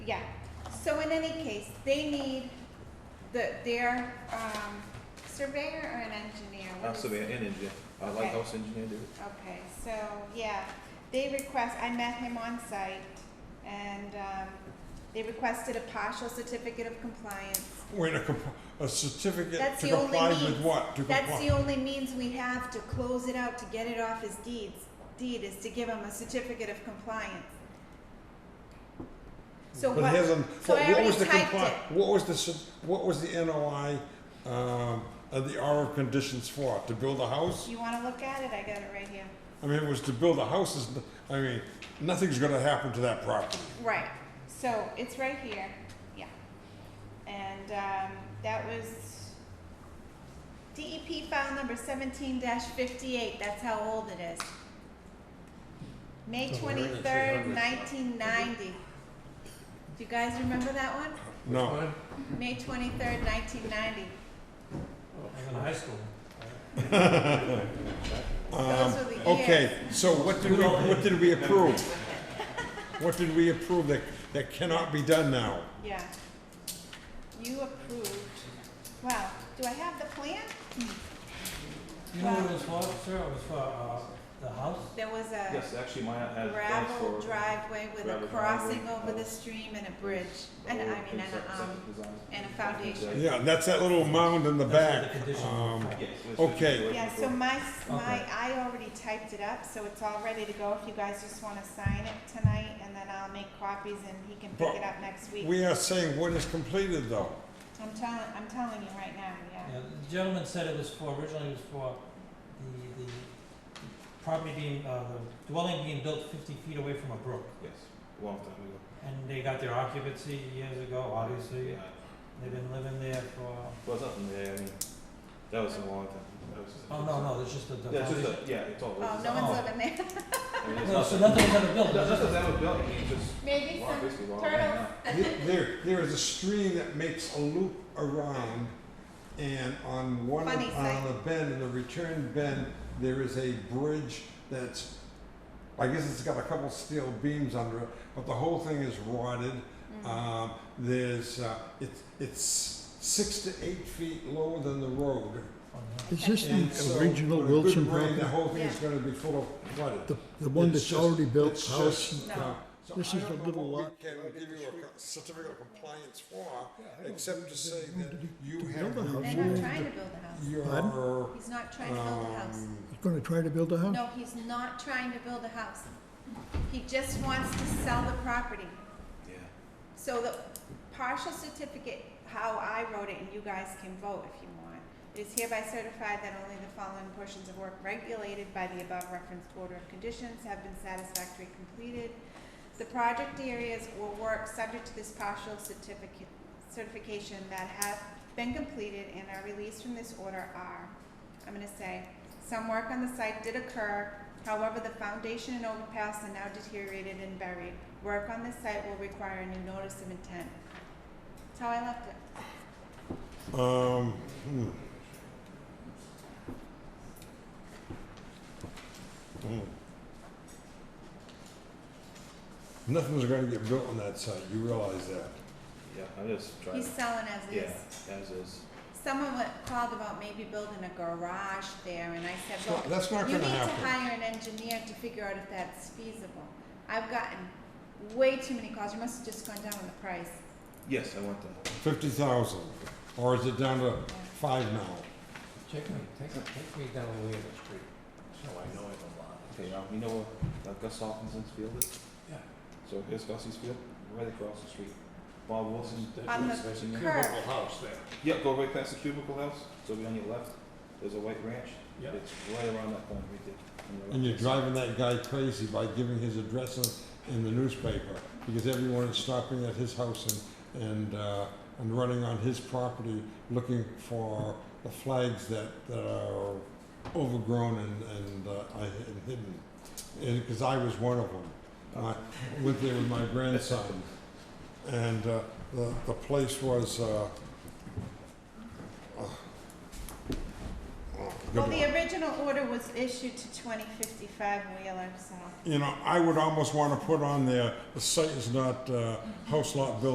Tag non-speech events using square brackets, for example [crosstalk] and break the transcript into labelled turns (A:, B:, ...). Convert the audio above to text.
A: Yeah, so in any case, they need the, their, um, surveyor or an engineer? What
B: I'll
A: is-
B: survey an engineer, a
A: Okay.
B: Uh, lighthouse engineer did it.
A: Okay, so, yeah, they request, I met him on site, and, um, they requested a partial certificate of compliance.
C: Wait, a, comp- a certificate
A: That's
C: to
A: the only
C: comply with
A: means-
C: what? To
A: That's the
C: comply.
A: only means we have to close it out to get it off his deeds, deed, is to give him a certificate of compliance. So what?
C: But it hasn't,
A: so
C: what
A: I
C: what
A: already
C: was the
A: typed
C: comply,
A: it.
C: what was the, cer- what was the NOI, um, of the R of conditions for? To build a house?
A: You wanna look at it? I got it right here.
C: I mean, it was to build a house, is, I mean, nothing's gonna happen to that property.
A: Right, so it's right here, yeah. And um, that was DEP file number seventeen fifty-eight, that's how old it is. May
C: Oh, we're in the
A: twenty-third,
B: 300s.
A: nineteen ninety. Do you guys remember that one?
C: No,
A: May twenty-third, nineteen ninety.
D: in high school.
C: um,
A: Those were the
C: okay, so what did we, what did we approve? What did we approve that, that cannot be done now?
A: Yeah. You approved, wow, do I have the plan?
D: You know what it was for, sir? It was for, uh, the house?
A: There was a.
B: Yes, actually mine
D: uh,
B: has plans
A: Uh, gravel
B: for.
A: driveway with a
B: gravel
A: crossing over
B: driveway.
A: the stream and a bridge, and I mean, and a, um, and a foundation.
C: Yeah, that's that little mound in the back,
D: That's what the condition
C: um,
D: was for.
C: Okay.
A: Yeah, so my, s- my,
D: Okay.
A: I already typed it up, so it's all ready to go, if you guys just wanna sign it tonight, and then I'll make copies and he can pick
C: But
A: it up next week.
C: We are saying what is completed though.
A: I'm telling, I'm telling you right now, yeah.
D: Yeah, the gentleman said it was for, originally it was for the, the property being, uh, the dwelling being built fifty feet away from a brook.
B: Yes, long time
D: And they got their occupancy years ago, obviously. uh,
B: ago.
D: They've been living there for,
B: Was up in there, I mean, that was a long time. That was-
D: oh, no, no, it's just the, the
B: Yeah, it's
D: foundation.
B: just a, yeah, it's all.
A: Oh,
B: it's
A: no
B: just-
A: one's
D: Oh.
A: living there.
B: I mean, it's
D: No, so
B: nothing.
D: nothing was ever built, it
B: No, That's
D: was just
B: just that was built, I mean, just.
A: [laughs] Maybe
B: well,
A: some
B: basically well,
A: turtles.
B: yeah.
C: There, there is a stream that makes a loop around and on one,
A: Funny
C: on
A: sight.
C: a bend, in the return bend, there is a bridge that's, I guess it's got a couple steel beams under it, but the whole thing is rotted.
A: Mm-hmm.
C: Um, there's, uh, it's, it's six to eight feet lower than the road.
D: on the-
E: Is this
C: And so,
E: the original
C: with a good
E: Wilson
C: rain, The
E: property?
C: whole thing is
A: Yeah.
C: gonna be full of flooded.
E: The, the one
C: It's
E: that's
C: just-
E: already built
C: it's
E: house?
C: just,
A: No.
C: uh, so
E: This
C: I
E: is
C: don't
E: the
C: know
E: little
C: what
E: lot.
C: we Can give you a co- certificate of compliance for, except to say that you
E: to
C: have.
E: build a house.
A: They're
C: reviewed
A: not trying to build a house.
C: Your,
E: Pardon?
C: um,
A: He's not trying to build a house.
E: He's gonna try to build a house?
A: No, he's not trying to build a house. He just wants to sell the property.
B: Yeah.
A: So the partial certificate, how I wrote it, and you guys can vote if you want, it is hereby certified that only the following portions of work regulated by the above referenced order of conditions have been satisfactorily completed. The project areas or work subject to this partial certificate, certification that have been completed and are released from this order are, I'm gonna say, some work on the site did occur, however, the foundation and overpass are now deteriorated and buried. Work on this site will require a new notice of intent. That's how I left it.
C: Um, hmm. Hmm. Nothing's gonna get built on that site, you realize that.
B: Yeah, I'm just trying,
A: He's selling as
B: yeah,
A: is.
B: as is.
A: Someone wa- called about maybe building a garage there, and I said,
C: So
A: look,
C: that's not
A: You
C: gonna
A: need to
C: happen.
A: hire an engineer to figure out if that's feasible. I've gotten way too many calls, you must have just gone down on the price.
B: Yes, I want that.
C: Fifty thousand, or is it down to five now?
F: Take me, take, take me down the way of the street, so I know it a lot.
B: Okay, um, you know what, uh, Gus Hawkinson's field is?
F: Yeah.
B: So here's Gus's field, right across the street. Bob Wilson's.
A: On the
F: There's a
A: curve.
F: cubicle house there.
B: Yeah, go right past the cubicle house, so be on your left, there's a white ranch.
F: Yeah.
B: It's right around that corner right there. on
C: And
B: your left.
C: you're driving that guy crazy by giving his address in, in the newspaper, because everyone is stopping at his house and, and, uh, and running on his property looking for the flags that, that are overgrown and, and, uh, I- and hidden. And, cause I was one of them. And I went there with my grandson, and, uh, the, the place was, uh, uh, Good
A: Well,
C: luck.
A: the original order was issued to twenty fifty-five Wheeler, so.
C: You know, I would almost want to put on there, the site is not, uh, house lot building